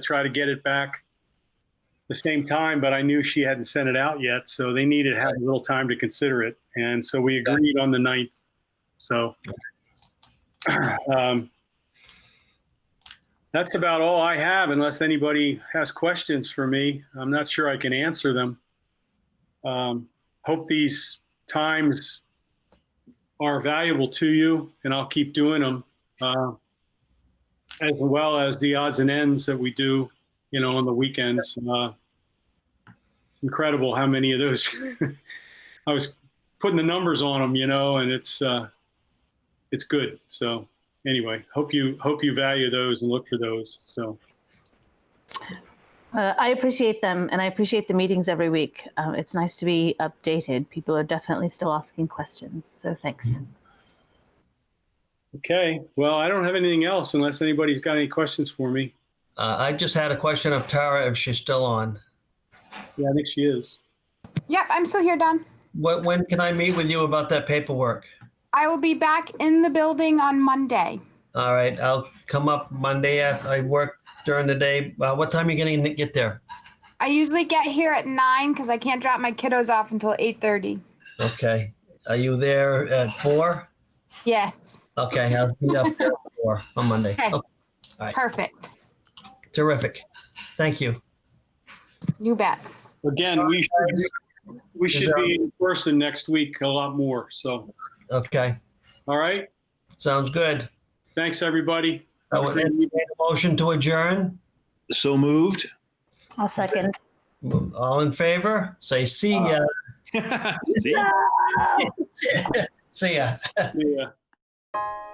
try to get it back the same time, but I knew she hadn't sent it out yet, so they needed to have a little time to consider it. And so we agreed on the 9th. So um, that's about all I have unless anybody has questions for me. I'm not sure I can answer them. Um, hope these times are valuable to you and I'll keep doing them. Uh, as well as the odds and ends that we do, you know, on the weekends. Uh, it's incredible how many of those I was putting the numbers on them, you know, and it's uh, it's good. So anyway, hope you hope you value those and look for those. So Uh, I appreciate them and I appreciate the meetings every week. Um, it's nice to be updated. People are definitely still asking questions. So thanks. okay, well, I don't have anything else unless anybody's got any questions for me. Uh, I just had a question of Tara if she's still on. Yeah, I think she is. Yep, I'm still here, Don. When, when can I meet with you about that paperwork? I will be back in the building on Monday. All right, I'll come up Monday. af- I work during the day. Uh, what time are you going to get there? I usually get here at nine because I can't drop my kiddos off until eight thirty. Okay. Are you there at four? Yes, Okay, I'll be up there at four on Monday. Okay. Okay, perfect. terrific. Thank you. You bet. Again, we should we should be in person next week a lot more. So Okay, all right, sounds good. thanks everybody. I would entertain a motion to adjourn. So moved. I'll second. All in favor? Say see ya. See? See ya. Yeah.